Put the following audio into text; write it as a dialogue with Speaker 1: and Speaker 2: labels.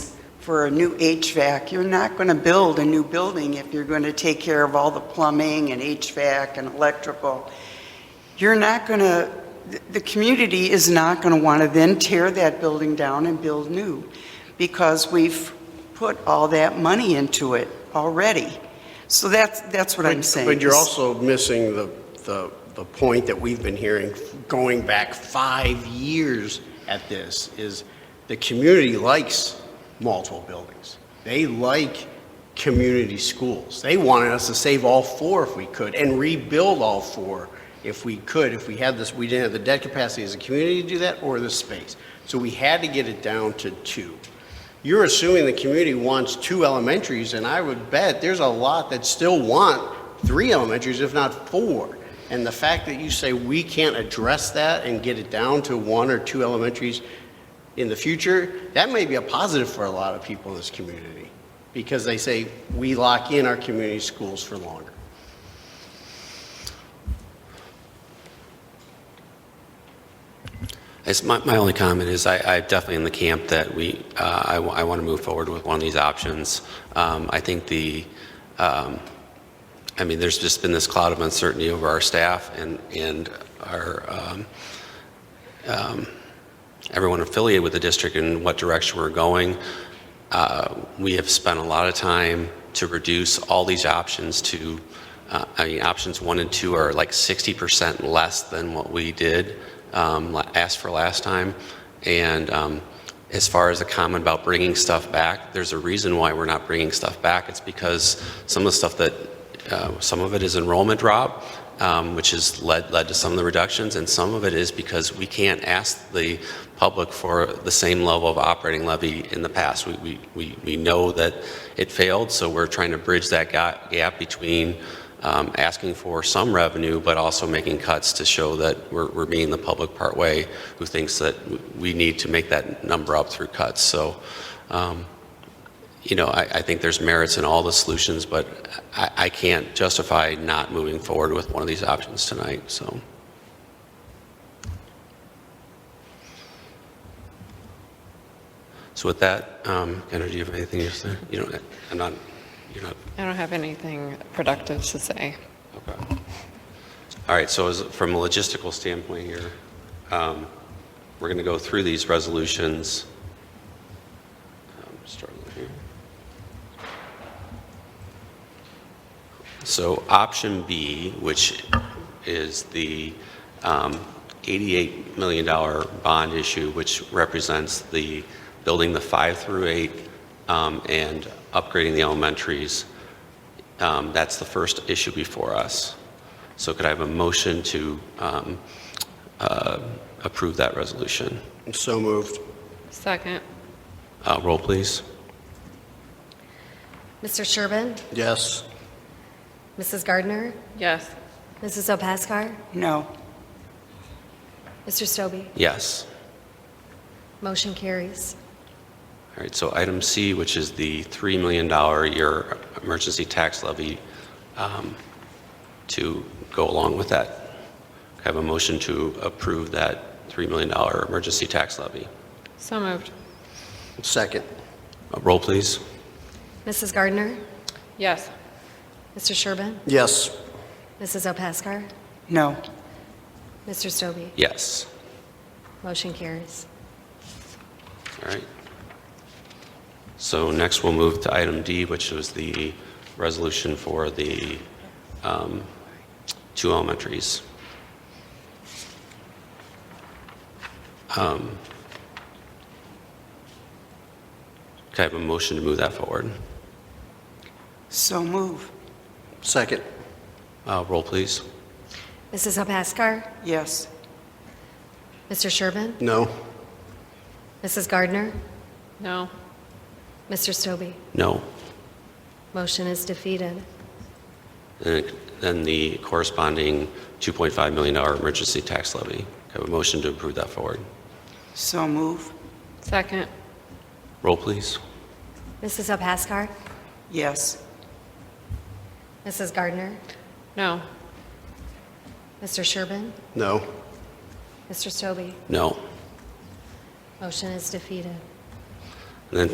Speaker 1: for a new HVAC. You're not going to build a new building if you're going to take care of all the plumbing and HVAC and electrical. You're not going to, the community is not going to want to then tear that building down and build new because we've put all that money into it already. So that's, that's what I'm saying.
Speaker 2: But you're also missing the, the, the point that we've been hearing going back five years at this, is the community likes multiple buildings. They like community schools. They wanted us to save all four if we could, and rebuild all four if we could, if we had this, we didn't have the debt capacity as a community to do that, or the space. So we had to get it down to two. You're assuming the community wants two elementaries, and I would bet there's a lot that still want three elementaries, if not four. And the fact that you say we can't address that and get it down to one or two elementaries in the future, that may be a positive for a lot of people in this community, because they say, we lock in our community schools for longer.
Speaker 3: It's my, my only comment is I, I definitely in the camp that we, uh, I, want to move forward with one of these options. Um, I think the, um, I mean, there's just been this cloud of uncertainty over our staff and, and our, um, um, everyone affiliated with the district and what direction we're going. Uh, we have spent a lot of time to reduce all these options to, uh, I mean, options one and two are like 60% less than what we did, um, la- asked for last time. And um, as far as the comment about bringing stuff back, there's a reason why we're not bringing stuff back. It's because some of the stuff that, uh, some of it is enrollment drop, um, which has led, led to some of the reductions, and some of it is because we can't ask the public for the same level of operating levy in the past. We, we, we, we know that it failed, so we're trying to bridge that ga- gap between um, asking for some revenue, but also making cuts to show that we're, we're meeting the public part way, who thinks that w- we need to make that number up through cuts. So, um, you know, I, I think there's merits in all the solutions, but I, I can't justify not moving forward with one of these options tonight, so. So with that, um, Kendra, do you have anything to say? You don't, I'm not, you're not,
Speaker 4: I don't have anything productive to say.
Speaker 3: okay. All right, so is, from a logistical standpoint here, um, we're going to go through these resolutions. I'm struggling here. So option B, which is the um, $88 million bond issue, which represents the building the five through eight um, and upgrading the elementaries, um, that's the first issue before us. So could I have a motion to um, uh, approve that resolution?
Speaker 2: So moved.
Speaker 4: Second.
Speaker 3: Uh, Roll, please.
Speaker 5: Mr. Sherbin?
Speaker 2: Yes.
Speaker 5: Mrs. Gardner?
Speaker 4: Yes.
Speaker 5: Mrs. Opaskar?
Speaker 1: No.
Speaker 5: Mr. Stobie?
Speaker 3: Yes.
Speaker 5: Motion carries.
Speaker 3: All right, so item C, which is the $3 million year emergency tax levy um, to go along with that. Can I have a motion to approve that $3 million emergency tax levy.
Speaker 4: So moved.
Speaker 2: Second.
Speaker 3: Uh, Roll, please.
Speaker 5: Mrs. Gardner?
Speaker 4: Yes.
Speaker 5: Mr. Sherbin?
Speaker 2: Yes.
Speaker 5: Mrs. Opaskar?
Speaker 1: No.
Speaker 5: Mr. Stobie?
Speaker 3: Yes.
Speaker 5: Motion carries.
Speaker 3: All right. So next, we'll move to item D, which was the resolution for the um, two elementaries. Um, Can I have a motion to move that forward?
Speaker 1: So move.
Speaker 2: Second.
Speaker 3: Uh, Roll, please.
Speaker 5: Mrs. Opaskar?
Speaker 1: Yes.
Speaker 5: Mr. Sherbin?
Speaker 2: No.
Speaker 5: Mrs. Gardner?
Speaker 4: No.
Speaker 5: Mr. Stobie?
Speaker 3: No.
Speaker 5: Motion is defeated.
Speaker 3: And Then the corresponding $2.5 million emergency tax levy. Can I have a motion to approve that forward?
Speaker 1: So move.
Speaker 4: Second.
Speaker 3: Roll, please.
Speaker 5: Mrs. Opaskar?
Speaker 1: Yes.
Speaker 5: Mrs. Gardner?
Speaker 4: No.
Speaker 5: Mr. Sherbin?
Speaker 2: No.
Speaker 5: Mr. Stobie?
Speaker 3: No.
Speaker 5: Motion is defeated.